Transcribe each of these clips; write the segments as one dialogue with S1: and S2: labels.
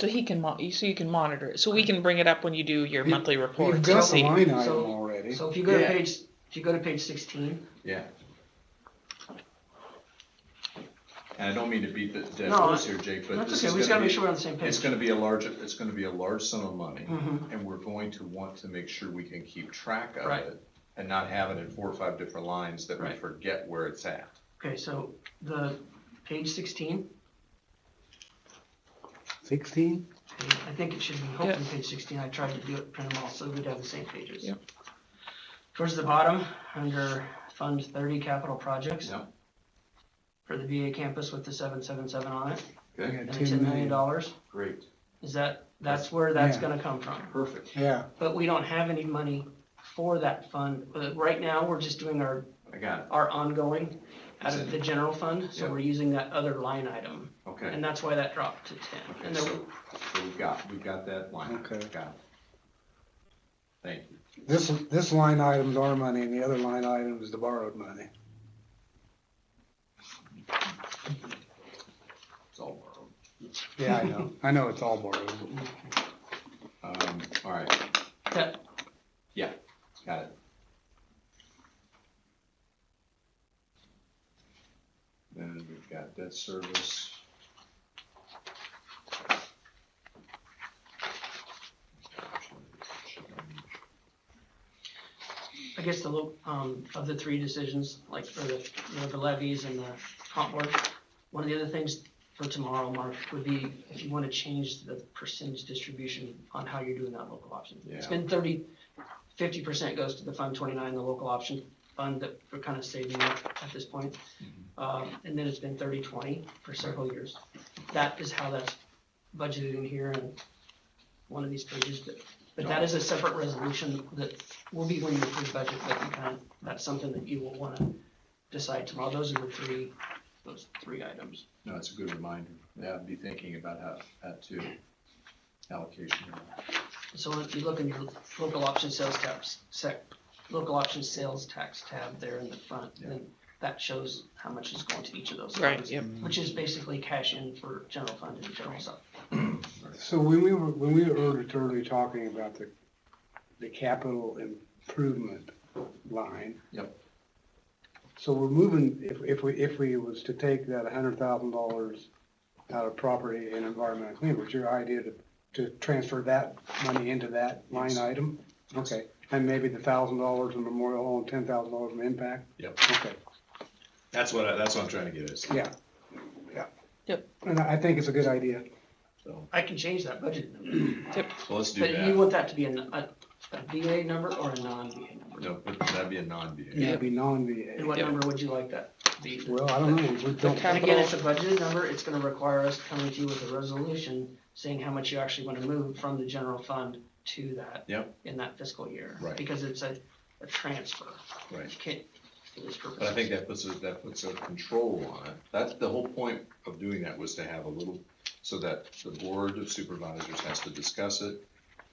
S1: So he can mo- so you can monitor it. So we can bring it up when you do your
S2: We-
S1: monthly report
S2: We've
S1: to
S2: got the
S1: see.
S2: line item
S3: So-
S2: already.
S3: So if you go to
S4: Yeah.
S3: page, if you go to page sixteen,
S4: Yeah. And I don't mean to beat the dead
S3: No,
S4: horse here, Jake, but
S3: that's
S4: this
S3: okay, we
S4: is
S3: just gotta
S4: gonna
S3: make sure
S4: be,
S3: we're on the same page.
S4: it's gonna be a large, it's gonna be a large sum of money.
S3: Mhm.
S4: And we're going to want to make sure we can keep track of
S3: Right.
S4: it and not have it in four or five different lines that we
S3: Right.
S4: forget where it's at.
S3: Okay, so the, page sixteen,
S2: Sixteen?
S3: page- I think it should be, hopefully page sixteen, I tried to do it, print them all, so we'd have the same pages.
S1: Yep.
S3: Towards the bottom, under Fund thirty capital projects.
S4: Yep.
S3: For the VA campus with the seven seven seven on it,
S2: We got
S3: and the
S2: ten
S3: ten million
S2: million.
S3: dollars,
S4: Great,
S3: is that, that's where that's
S2: Yeah.
S3: gonna come from.
S4: perfect.
S2: Yeah,
S3: But we don't have any money for that fund, but right now, we're just doing our
S4: I got it.
S3: are ongoing out of the general fund, so
S4: Yeah.
S3: we're using that other line item,
S4: Okay.
S3: and that's why that dropped to ten.
S4: Okay,
S3: And
S4: so,
S3: there,
S4: so we've got, we've got that line.
S2: Okay.
S4: Got it. Thank you.
S2: this, this line item's our money and the other line item is the borrowed money.
S4: It's all borrowed.
S2: Yeah, I know, I know it's all borrowed.
S4: Um, all right,
S3: that,
S4: got it. Then we've got debt service.
S3: I guess the, lo- um, of the three decisions, like for the, you know, the levies and the comp board, one of the other things for tomorrow, Mark, would be if you wanna change the percentage distribution on how you're doing that local option. It's
S4: Yeah.
S3: been thirty, fifty percent goes to the Fund twenty-nine, the local option fund that we're kinda saving up at this point. Um, and then it's been 30-20 for several years. That is how that's budgeted in here in one of these pages, but, but that is a separate resolution that will be when you approve budget, but you kind of, that's something that you will wanna decide tomorrow. Those are the three, those three items.
S4: No, it's a good reminder. Yeah, I'd be thinking about how, that too. Allocation.
S3: So if you look in your local option sales tax, sec, local option sales tax tab there in the front, then that shows how much is going to each of those.
S1: Right,
S3: funds,
S1: yep.
S3: Which is basically cash in for general fund and general sub.
S2: So when we were, when we were earlier- earlier talking about the, the capital improvement line.
S4: Yep.
S2: So we're moving, if, if we, if we was to take that hundred thousand dollars out of property and environmental cleanup, was your idea to, to transfer that money into that line
S4: Yes.
S2: item? Okay, and maybe the thousand dollars in memorial home, ten thousand dollars in impact?
S4: Yep.
S2: Okay,
S4: That's what, I- that's what I'm trying to get at.
S2: yeah, yeah.
S1: Yep.
S2: And I I think it's a good idea.
S4: So,
S3: I can change that budget number.
S4: well, let's do
S3: But you
S4: that.
S3: want that to be a, a, a VA number or a non-VA number?
S4: No, but that'd be a non-BA.
S1: Yeah.
S2: It'd be non-VA.
S3: And what
S1: Yeah.
S3: number would you like that to be?
S2: Well, I don't know, we don't.
S3: And again,
S1: Capital.
S3: it's a budgeted number, it's gonna require us coming to you with a resolution saying how much you actually wanna move from the general fund to that.
S4: Yep.
S3: In that fiscal year.
S4: Right.
S3: Because it's a, a transfer,
S4: Right.
S3: you can't, for this purpose.
S4: But I think that puts a, that puts a control on it. That's the whole point of doing that was to have a little, so that the board of supervisors has to discuss it,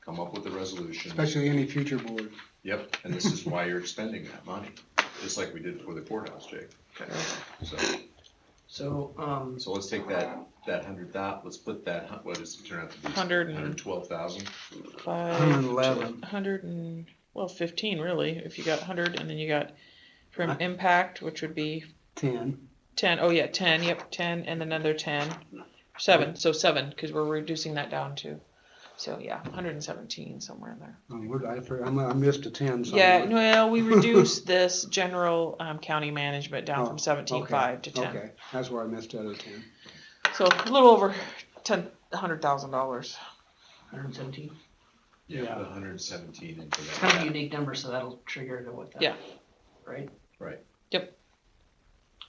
S4: come up with a resolution.
S2: Especially any future board.
S4: Yep, and this is why you're expending that money, just like we did for the courthouse, Jake. So,
S3: So, um,
S4: so let's take that, that hundred thou, let's put that, hu- what does it turn out to be?
S1: Hundred
S4: Hundred and
S1: and
S4: twelve thousand?
S1: five, hundred and, well, fifteen really, if you got hundred and then you got from
S2: Huh?
S1: impact, which would be
S2: Ten.
S1: ten, oh yeah, ten, yep, ten, and then another ten. Seven, so seven, cause we're reducing that down to, so yeah, hundred and seventeen, somewhere in there.
S2: Oh, we're- I for- I'm- I missed a ten somewhere.
S1: Yeah, well, we reduced this general, um, county management down
S2: Oh,
S1: from seventeen-five to ten.
S2: Okay, that's where I missed out of ten.
S1: So a little over ten, a hundred thousand dollars.
S3: hundred and seventeen,
S4: Yeah,
S2: Yeah.
S4: put hundred and seventeen into
S3: it's kind of a
S4: that.
S3: unique number, so that'll trigger to what that.
S1: Yeah.
S3: Right?
S4: Right.
S1: Yep.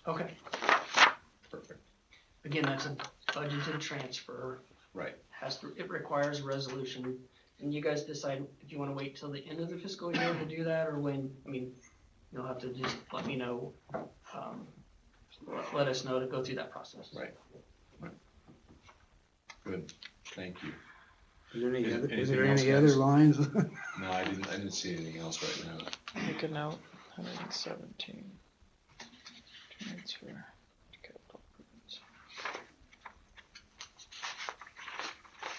S3: Okay,
S4: Perfect,
S3: again, that's a budgeted transfer.
S4: right,
S3: has to, it requires a resolution, and you guys decide if you wanna wait till the end of the fiscal year to do that, or when, I mean, you'll have to just let me know, um, let- let us know to go through that process.
S4: Right. good, thank you.
S2: Is there any
S4: Is-
S2: other, is
S4: anything
S2: there
S4: else,
S2: any
S4: guys?
S2: other lines?
S4: No, I didn't, I didn't see anything else right now.
S1: Make a note, hundred and seventeen. Transfer.